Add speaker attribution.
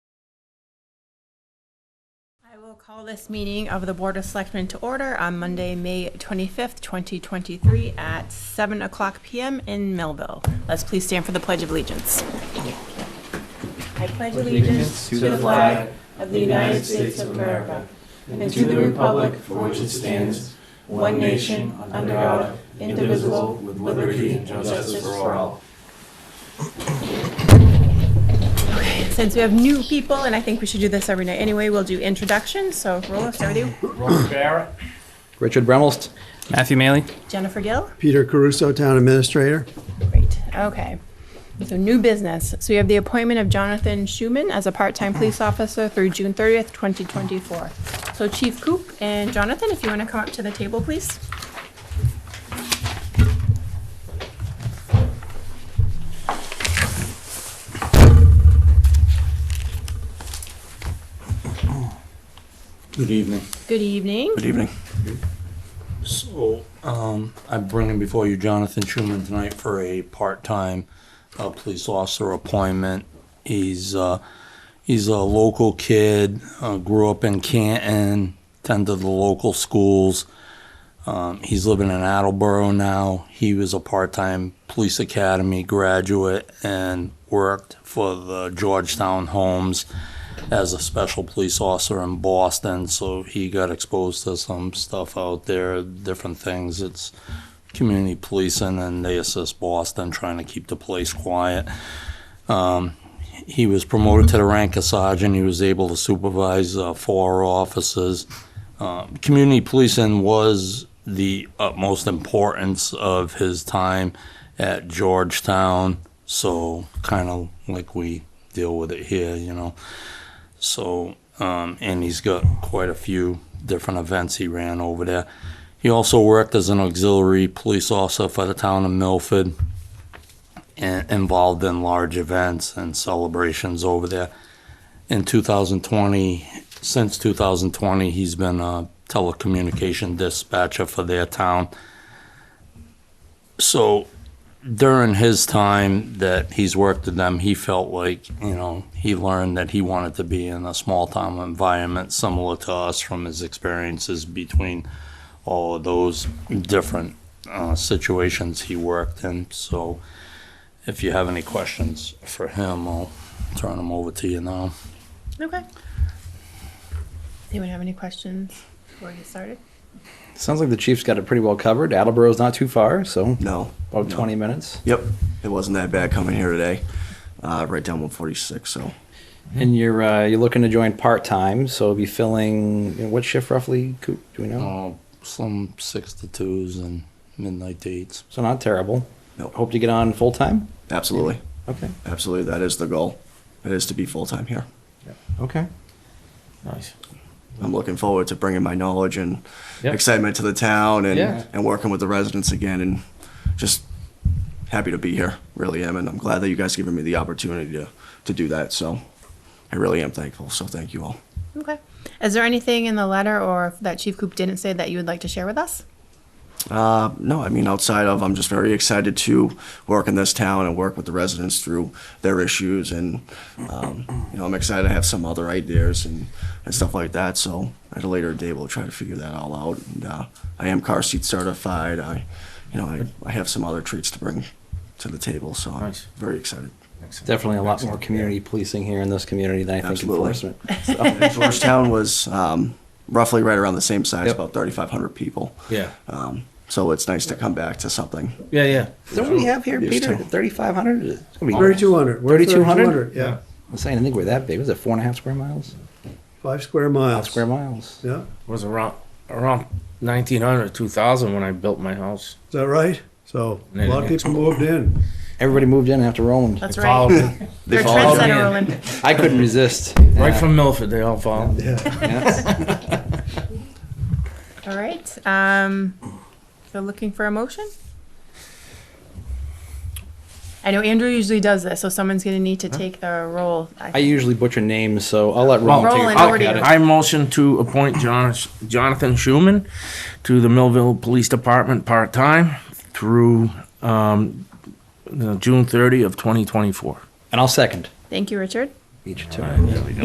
Speaker 1: I will call this meeting of the Board of Selectmen to order on Monday, May 25th, 2023, at 7 o'clock PM in Millville. Let's please stand for the Pledge of Allegiance. I pledge allegiance to the flag of the United States of America and to the republic for which it stands, one nation, under God, indivisible, with liberty and justice for all. Since we have new people, and I think we should do this every night anyway, we'll do introductions. So roll up, start with you.
Speaker 2: Richard Bremelst.
Speaker 3: Matthew Maley.
Speaker 1: Jennifer Gill?
Speaker 4: Peter Caruso, Town Administrator.
Speaker 1: Great, okay. So new business. So we have the appointment of Jonathan Schuman as a part-time police officer through June 30th, 2024. So Chief Coop and Jonathan, if you want to come up to the table, please.
Speaker 5: Good evening.
Speaker 1: Good evening.
Speaker 5: Good evening. So, um, I'm bringing before you Jonathan Schuman tonight for a part-time, uh, police officer appointment. He's, uh, he's a local kid, uh, grew up in Canton, attended the local schools. Um, he's living in Attleboro now. He was a part-time police academy graduate and worked for the Georgetown Homes as a special police officer in Boston, so he got exposed to some stuff out there, different things. It's community policing, and they assist Boston trying to keep the place quiet. Um, he was promoted to the rank of sergeant. He was able to supervise uh, four officers. Um, community policing was the utmost importance of his time at Georgetown, so kind of like we deal with it here, you know. So, um, and he's got quite a few different events he ran over there. He also worked as an auxiliary police officer for the town of Milford, and involved in large events and celebrations over there. In 2020, since 2020, he's been a telecommunication dispatcher for their town. So, during his time that he's worked with them, he felt like, you know, he learned that he wanted to be in a small town environment similar to us from his experiences between all of those different uh, situations he worked in. So if you have any questions for him, I'll turn them over to you now.
Speaker 1: Okay. Anyone have any questions before we get started?
Speaker 2: Sounds like the Chiefs got it pretty well covered. Attleboro's not too far, so
Speaker 6: No.
Speaker 2: about
Speaker 6: no.
Speaker 2: 20 minutes.
Speaker 6: Yep. It wasn't that bad coming here today. Uh, right down 146. So
Speaker 2: And you're uh, you're looking to join part time, so you'll be filling you know, what shift roughly? Coop, do we know?
Speaker 5: Uh, some six to twos and midnight dates.
Speaker 2: So not terrible.
Speaker 6: Nope.
Speaker 2: Hope to get on full time.
Speaker 6: absolutely,
Speaker 2: Okay.
Speaker 6: absolutely, that is the goal. It is to be full time here.
Speaker 2: Okay.
Speaker 3: Nice.
Speaker 6: I'm looking forward to bringing my knowledge and
Speaker 2: Yep.
Speaker 6: excitement to the town and
Speaker 2: Yeah.
Speaker 6: and working with the residents again and just happy to be here. Really am, and I'm glad that you guys given me the opportunity to to do that. So I really am thankful. So thank you all.
Speaker 1: Okay. Is there anything in the letter or that Chief Coop didn't say that you would like to share with us?
Speaker 6: Uh, no, I mean, outside of, I'm just very excited to work in this town and work with the residents through their issues. And, um, you know, I'm excited to have some other ideas and, and stuff like that. So at a later date, we'll try to figure that all out. And, uh, I am car seat certified. I, you know, I, I have some other treats to bring to the table. So I'm
Speaker 3: Nice.
Speaker 6: very excited.
Speaker 2: Definitely a lot more community policing here in this community than I think
Speaker 6: Absolutely.
Speaker 2: enforcement.
Speaker 6: And Georgetown was, um, roughly right around the same size,
Speaker 2: Yep.
Speaker 6: about 3,500 people.
Speaker 3: Yeah.
Speaker 6: Um, so it's nice to come back to something.
Speaker 3: Yeah, yeah.
Speaker 2: So what do we have here,
Speaker 6: Used
Speaker 2: Peter?
Speaker 6: to.
Speaker 2: 3,500? It's gonna be-
Speaker 4: 3,200. We're
Speaker 2: 3,200?
Speaker 4: Yeah,
Speaker 2: I'm saying, I think we're that big. Was it four and a half square miles?
Speaker 4: five square miles.
Speaker 2: Five square miles.
Speaker 4: Yeah,
Speaker 7: was around around 1900 2000 when i built my house
Speaker 4: is that right? So a lot of people moved in.
Speaker 2: Everybody moved in after Roland.
Speaker 1: That's
Speaker 7: They
Speaker 1: right.
Speaker 7: followed me
Speaker 1: They're
Speaker 7: followed me
Speaker 1: trendsetter,
Speaker 7: in.
Speaker 1: Roland.
Speaker 2: I couldn't resist.
Speaker 7: right
Speaker 2: Yeah.
Speaker 7: from milford they all followed me.
Speaker 4: Yeah,
Speaker 2: Yeah.
Speaker 1: All right. Um, so looking for a motion? I know Andrew usually does this, so someone's gonna need to take the role.
Speaker 2: I usually butcher names, so I'll let
Speaker 7: Well,
Speaker 2: Roland take
Speaker 1: Roland
Speaker 2: a
Speaker 1: already
Speaker 2: crack at it.
Speaker 7: I motion to appoint John, Jonathan Schuman to the Millville Police Department part-time through um, uh, June 30 of 2024.
Speaker 2: And I'll second.
Speaker 1: Thank you, Richard.
Speaker 2: Each two.